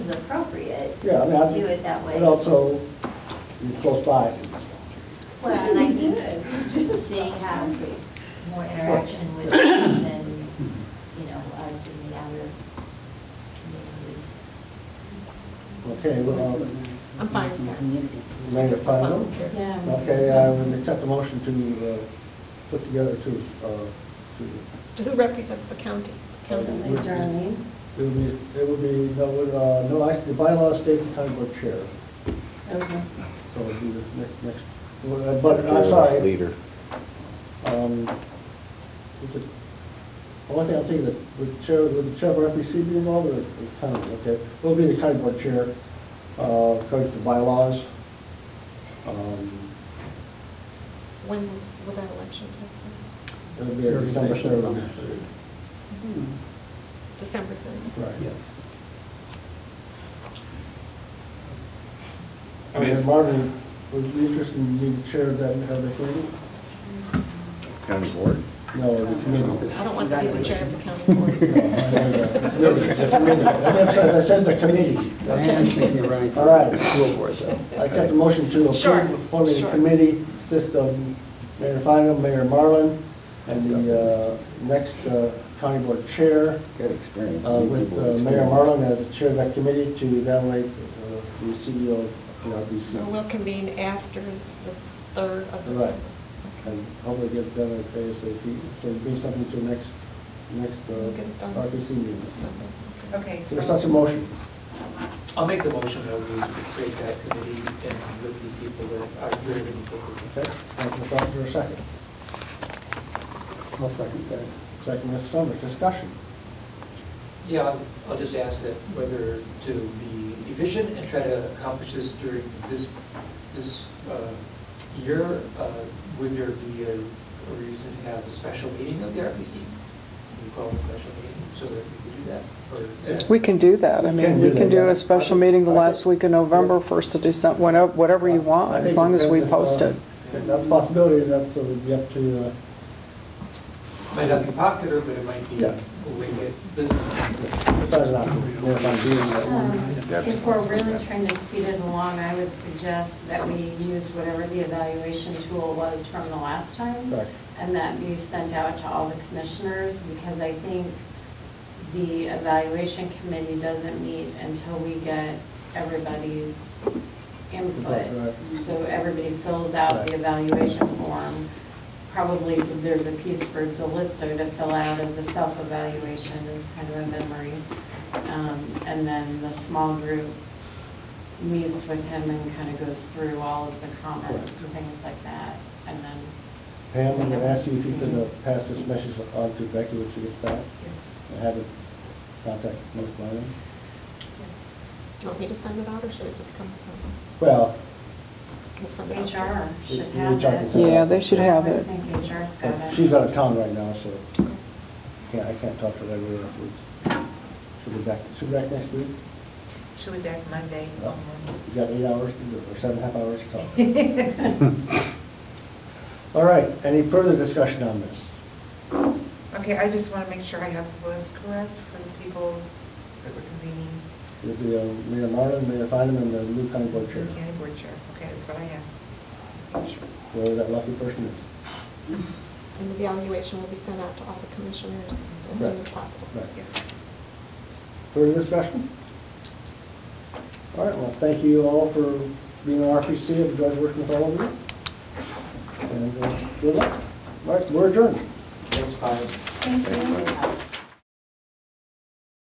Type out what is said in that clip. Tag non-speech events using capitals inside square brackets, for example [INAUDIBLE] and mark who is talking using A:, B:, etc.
A: appropriate to
B: Yeah, I mean, I-
A: do it that way.
B: And also, you're close by.
A: Well, and I think they have more interaction with it than, you know, us in the outer communities.
B: Okay, well, um,
C: I'm fine with
B: made it final.
D: Yeah.
B: Okay, um, I would accept the motion to uh, put together to, uh, to,
C: Who represents the county?
B: County. it would be, it would be, no, uh, no, actually, the bylaws state the county board chair.
D: Okay.
B: So it would be the next, next, well, uh, but I'm sorry.
E: Leader.
B: um, is it- One thing I'm thinking, that would the chair, would the chair of RPC be involved or the county? Okay, it will be the county board chair, uh, according to bylaws. Um,
C: When will that election take
B: It'll be a December third.
C: place? December 3rd.
B: Hmm. Right.
F: Yes.
B: I mean, Marvin, would you be interested in being chair of that, of the committee?
E: County board.
B: No, the committee.
C: Um, I don't want to be the chair of the county board.
B: No, I know that. The committee, the committee. I said- I said the committee.
F: So Anne's thinking of running for
B: [LAUGHS] All right.
F: school board, though.
B: I accept the motion to
C: Sure,
B: approve forming a
C: sure.
B: committee, system, Mayor Finem, Mayor Marlin, and the uh, next uh, county board chair,
E: Got experience.
B: uh, with uh, Mayor Marlin as the chair of that committee to evaluate uh, the CEO of PRBC.
C: So we'll convene after the 3rd of
B: Right,
C: December.
B: and hopefully get it done as ASAP, so bring something to next, next
C: We'll get it
B: uh,
C: done.
B: RPC meeting.
C: December, okay.
G: Okay,
B: There's such a
G: so,
B: motion,
H: I'll make the motion that we create that committee and with the people that are here in the
B: okay? Motion for for a second.
F: I'll second that.
B: Second, Mr. Summers, discussion.
H: Yeah, I'll- I'll just ask that whether to be efficient and try to accomplish this during this, this uh, year, uh, would there be a a reason to have a special meeting of the RPC? We call it a special meeting so that we could do that, or? is that-
I: We can do that. I
B: You can
I: mean,
B: do
I: we can
B: that,
I: do
B: yeah.
I: a special meeting the
B: I think-
I: last week of November, first of December, whenever- whatever you
B: I
I: want, as
B: think
I: long as we
B: if, uh,
I: post it.
B: if That's a possibility, that's, so we'd be up to, uh,
H: Might not be popular, but it might be
B: Yeah.
H: a way to get business.
B: if that's an option, if I'm doing that.
D: Um, If we're really trying to speed it along, I would suggest that we use whatever the evaluation tool was from the last time.
B: Correct.
D: And that be sent out to all the commissioners, because I think the evaluation committee doesn't meet until we get everybody's
B: Right.
D: input. So everybody fills out the evaluation form. Probably there's a piece for Delitzer to fill out of the self-evaluation, it's kind of a memory. Um, And then the small group meets with him and kind of goes through all of the comments and things like that. And then,
B: Pam, I'm gonna ask you if you could uh, pass this message on to Becky when she gets back,
G: yes,
B: and have it contact Ms. Marlin.
G: yes.
C: Do you want me to send it out, or should it just come from?
B: Well,
C: we'll send it out?
D: HR should
B: You- you
D: have
B: talk
D: it.
B: to-
I: Yeah, they should have
D: I
I: it.
D: think HR's got
B: But
D: it.
B: She's out of town right now, so I can't, I can't talk to her regularly. She'll be back, she'll be back next week.
G: She'll be back Monday.
B: No.
G: um,
B: You got eight hours to do, it, or seven and a half hours to talk. All right, any further discussion on this?
G: Okay, I just want to make sure I have the list correct for the people that were convening.
B: It'll be uh, Mayor Marlin, Mayor Finem, and the new county board chair,
G: The County board chair, okay, that's what I have. Sure.
B: whoever that lucky person is.
C: And the evaluation will be sent out to all the commissioners as
B: Right.
C: soon as possible.
B: Right.
G: Yes.
B: Further discussion? All right, well, thank you all for being on RPC, I've enjoyed working with all of you. And uh, good luck. All right, we're adjourned.
H: Thanks, Pius.
D: Thank you.